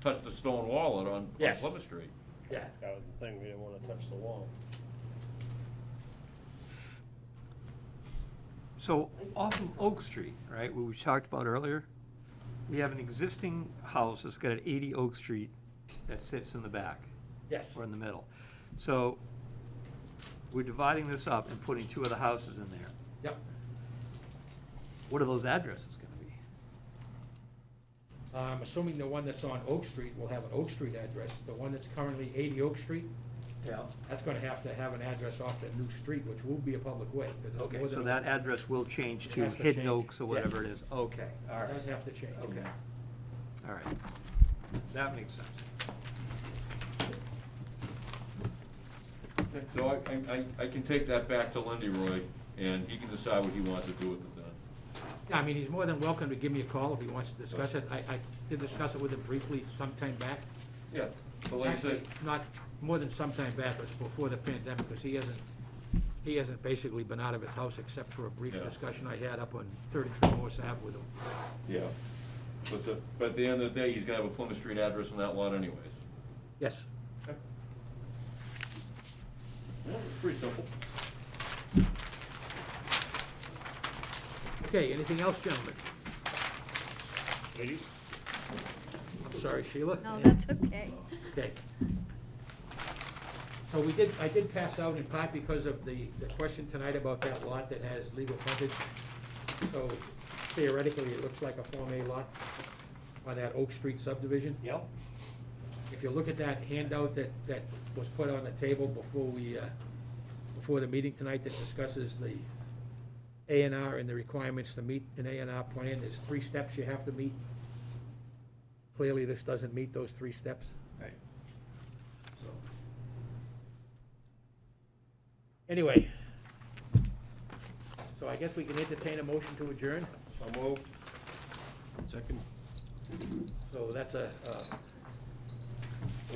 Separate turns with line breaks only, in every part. touch the stone wall out on on
Yes.
Plymouth Street.
yeah.
That was the thing, we didn't wanna touch the wall.
So off of Oak Street, right, what we talked about earlier, we have an existing house that's got an eighty Oak Street that sits in the back.
Yes.
Or in the middle. So we're dividing this up and putting two other houses in there.
Yep.
What are those addresses gonna be?
I'm assuming the one that's on Oak Street will have an Oak Street address. The one that's currently 80 Oak Street,
Yeah.
that's going to have to have an address off that new street, which will be a public way. 'cause it's
Okay,
more
so
than-
that address will change
It
to
has to
Hidden
change.
Oaks or
Yes.
whatever it is. Okay, all
It
right.
does have to change.
Okay. All right. That makes sense.
So I, I, I can take that back to Lindy Roy, and he can decide what he wants to do with it then.
Yeah, I mean, he's more than welcome to give me a call if he wants to discuss it. I, I did discuss it with him briefly sometime back.
Yeah, but like I said,
Actually, Not more than sometime back, it was before the pandemic, because he hasn't, he hasn't basically been out of his house except for a brief
Yeah.
discussion I had up on 33 Morse Ave with him.
yeah, but the, but at the end of the day, he's gonna have a Plymouth Street address on that lot anyways.
Yes.
Yeah, it's pretty simple.
Okay, anything else, gentlemen?
Ladies?
I'm sorry, Sheila?
No, that's okay.
Okay. So we did, I did pass out in part because of the, the question tonight about that lot that has legal frontage. So theoretically, it looks like a Form A lot on that Oak Street subdivision.
Yep.
If you look at that handout that, that was put on the table before we, uh, before the meeting tonight that discusses the A and R and the requirements to meet an A and R plan, there's three steps you have to meet. Clearly, this doesn't meet those three steps.
Right.
So. Anyway, so I guess we can entertain a motion to adjourn.
So moved. Second.
So that's a, uh,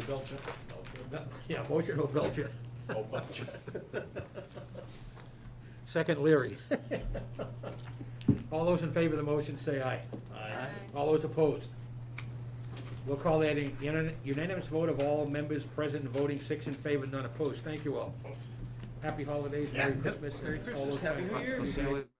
yeah, motion O'Belcher.
Oh, bunch.
Second Leary. All those in favor of the motion, say aye.
Aye.
All those opposed? We'll call that a unan- unanimous vote of all members present and voting, six in favor, none opposed. Thank you all. Happy holidays, Merry Christmas. and all those
Happy New
kind of
Year.
things.